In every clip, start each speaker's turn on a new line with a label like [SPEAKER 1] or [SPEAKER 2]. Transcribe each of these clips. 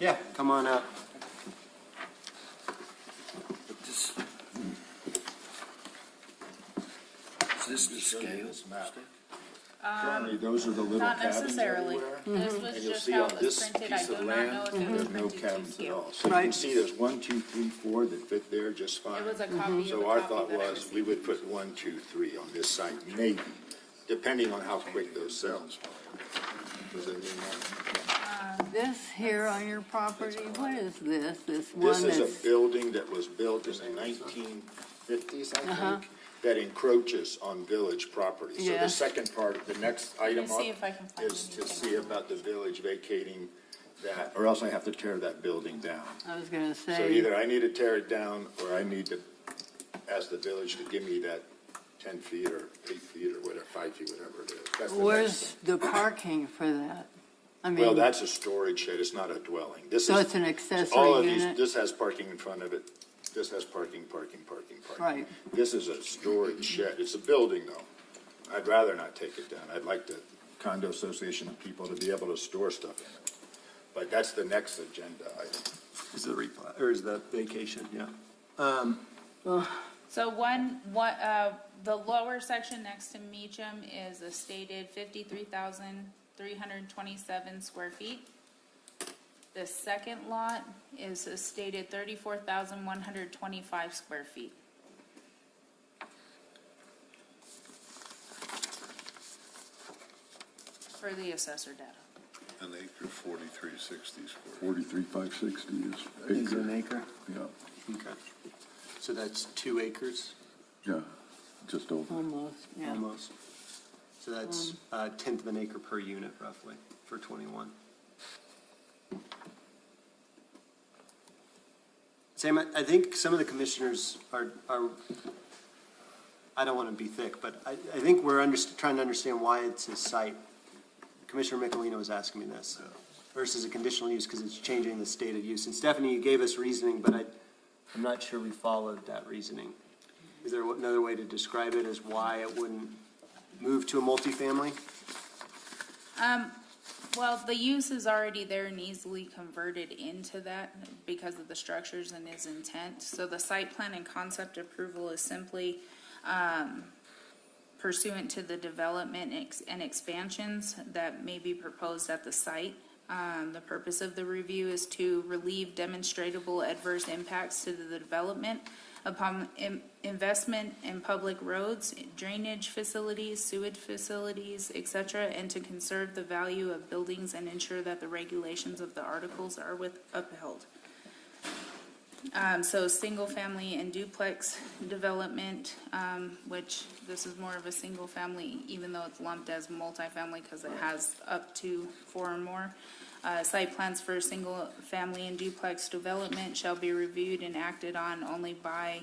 [SPEAKER 1] Yeah, come on up.
[SPEAKER 2] This- hmm. Is this the scale?
[SPEAKER 3] Currently, those are the little
[SPEAKER 4] Um, Not
[SPEAKER 3] cabins
[SPEAKER 4] necessarily.
[SPEAKER 3] everywhere.
[SPEAKER 4] This
[SPEAKER 3] And
[SPEAKER 4] was
[SPEAKER 3] you'll
[SPEAKER 4] just
[SPEAKER 3] see
[SPEAKER 4] how
[SPEAKER 3] on
[SPEAKER 4] it was
[SPEAKER 3] this
[SPEAKER 4] printed. I
[SPEAKER 3] piece
[SPEAKER 4] do
[SPEAKER 3] of
[SPEAKER 4] not know
[SPEAKER 3] land,
[SPEAKER 4] if it was
[SPEAKER 3] there's no
[SPEAKER 4] printed to
[SPEAKER 3] cabins at
[SPEAKER 4] scale.
[SPEAKER 3] all. So you can see there's one, two, three, four that fit there just fine.
[SPEAKER 4] It was a copy of a
[SPEAKER 3] So our
[SPEAKER 4] copy
[SPEAKER 3] thought
[SPEAKER 4] that I
[SPEAKER 3] was, we
[SPEAKER 4] received.
[SPEAKER 3] would put one, two, three on this site, maybe, depending on how quick those sells. Does that mean that-
[SPEAKER 5] This here on your property, what is this? This
[SPEAKER 3] This
[SPEAKER 5] one
[SPEAKER 3] is a
[SPEAKER 5] that's,
[SPEAKER 3] building that was built in the nineteen fifties, I
[SPEAKER 4] Uh-huh.
[SPEAKER 3] think, that encroaches on village property. So
[SPEAKER 5] Yeah.
[SPEAKER 3] the second part, the next
[SPEAKER 4] me
[SPEAKER 3] item
[SPEAKER 4] see if I can
[SPEAKER 3] up
[SPEAKER 4] find
[SPEAKER 3] is to
[SPEAKER 4] anything
[SPEAKER 3] see
[SPEAKER 4] on
[SPEAKER 3] about the village vacating that, or else I have to tear that building down.
[SPEAKER 5] I was gonna
[SPEAKER 3] So
[SPEAKER 5] say,
[SPEAKER 3] either I need to tear it down, or I need to ask the village to give me that ten feet or eight feet or whatever, five feet, whatever it is. That's the next
[SPEAKER 5] where's the parking for that? I
[SPEAKER 3] Well,
[SPEAKER 5] mean,
[SPEAKER 3] that's a storage shed, it's not a dwelling. This
[SPEAKER 5] so it's
[SPEAKER 3] is,
[SPEAKER 5] an
[SPEAKER 3] all of
[SPEAKER 5] accessory
[SPEAKER 3] these,
[SPEAKER 5] unit?
[SPEAKER 3] this has parking in front of it, this has parking, parking, parking, parking.
[SPEAKER 5] Right.
[SPEAKER 3] This is a storage shed, it's a building though. I'd rather not take it down, I'd like the condo association people to be able to store stuff in it. But that's the next agenda item.
[SPEAKER 1] Is the replat, or is the vacation, yeah. Um,
[SPEAKER 4] So one, one, uh, the lower section next to Meacham is a stated fifty-three thousand, three hundred and twenty-seven square feet. The second lot is a stated thirty-four thousand, one hundred and twenty-five square feet. For the assessor data.
[SPEAKER 6] An acre, forty-three sixty square.
[SPEAKER 7] Forty-three, five sixty is
[SPEAKER 1] is it
[SPEAKER 7] acre,
[SPEAKER 1] an acre?
[SPEAKER 7] yeah,
[SPEAKER 1] Okay. So that's two acres,
[SPEAKER 7] yeah, just over.
[SPEAKER 5] Almost, yeah.
[SPEAKER 1] almost. So that's a tenth of an acre per unit roughly for twenty-one. Sam, I- I think some of the commissioners are, are, I don't want to be thick, but I, I think we're under, trying to understand why it's a site. Commissioner Michelino was asking me this versus a conditional use because it's changing the state of use. And Stephanie, you gave us reasoning, but I, I'm not sure we followed that reasoning. Is there another way to describe it as why it wouldn't move to a multifamily?
[SPEAKER 4] Um, well, the use is already there and easily converted into that because of the structures and his intent. So the site plan and concept approval is simply, um, pursuant to the development ex- and expansions that may be proposed at the site. Um, the purpose of the review is to relieve demonstrable adverse impacts to the development upon in- investment in public roads, drainage facilities, sewage facilities, et cetera, and to conserve the value of buildings and ensure that the regulations of the articles are with upheld. Um, so single-family and duplex development, um, which this is more of a single-family, even though it's lumped as multifamily because it has up to four or more. Uh, site plans for single-family and duplex development shall be reviewed and acted on only by,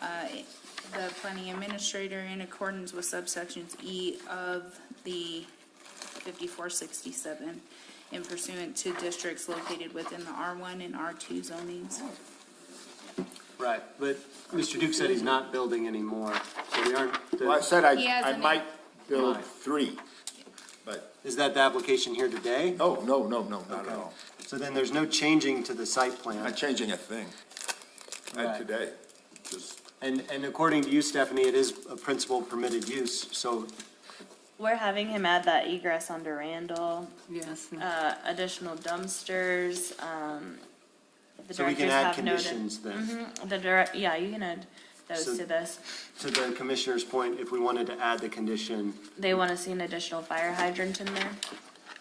[SPEAKER 4] uh, the planning administrator in accordance with subsections E of the 5467 in pursuant to districts located within the R1 and R2 zonings.
[SPEAKER 1] Right, but Mr. Duke said he's not building anymore, so we aren't,
[SPEAKER 3] Well, I
[SPEAKER 1] the-
[SPEAKER 3] said I,
[SPEAKER 4] He has
[SPEAKER 3] I
[SPEAKER 4] an
[SPEAKER 3] might build
[SPEAKER 1] Right.
[SPEAKER 3] three, but,
[SPEAKER 1] is that the application here today?
[SPEAKER 3] no, Oh, no, no, no, not
[SPEAKER 1] Okay.
[SPEAKER 3] at all.
[SPEAKER 1] So then there's no changing to the site
[SPEAKER 3] Not
[SPEAKER 1] plan.
[SPEAKER 3] changing a thing,
[SPEAKER 1] Right.
[SPEAKER 3] not today, just
[SPEAKER 1] And, and according to you, Stephanie, it is a principal permitted use, so
[SPEAKER 8] We're having him add that egress onto Randall,
[SPEAKER 5] Yes,
[SPEAKER 8] uh, additional dumpsters, um, if the
[SPEAKER 1] So we can
[SPEAKER 8] directors
[SPEAKER 1] add
[SPEAKER 8] have noted. Mm-hmm.
[SPEAKER 1] conditions then.
[SPEAKER 8] The direct, yeah, you can add
[SPEAKER 1] So-
[SPEAKER 8] those to this.
[SPEAKER 1] To the commissioner's point, if we wanted to add the condition,
[SPEAKER 8] They wanna see an additional fire hydrant in there.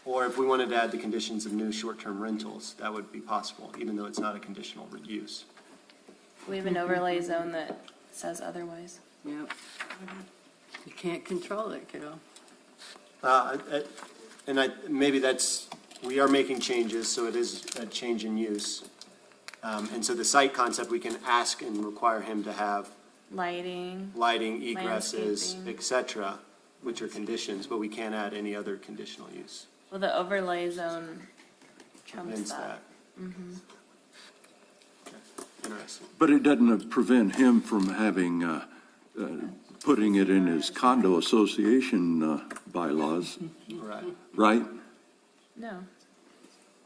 [SPEAKER 1] or if we wanted to add the conditions of new short-term rentals, that would be possible, even though it's not a conditional use.
[SPEAKER 8] We have an
[SPEAKER 1] Mm-hmm.
[SPEAKER 8] overlay zone that says otherwise.
[SPEAKER 5] yep. You can't control it, kiddo.
[SPEAKER 1] Uh, I- I- And I, maybe that's, we are making changes, so it is a change in use. Um, And so the site concept, we can ask and require him to have
[SPEAKER 8] Lighting,
[SPEAKER 1] lighting, egresses,
[SPEAKER 8] Landscaping.
[SPEAKER 1] et cetera, which are conditions, but we can't add any other conditional use.
[SPEAKER 8] well, the overlay zone trumps
[SPEAKER 1] Hence
[SPEAKER 8] that.
[SPEAKER 1] that. Okay, Interesting.
[SPEAKER 7] But it doesn't prevent him from having, uh, uh, putting it in his condo association uh, bylaws,
[SPEAKER 1] Right.
[SPEAKER 7] right?
[SPEAKER 8] No,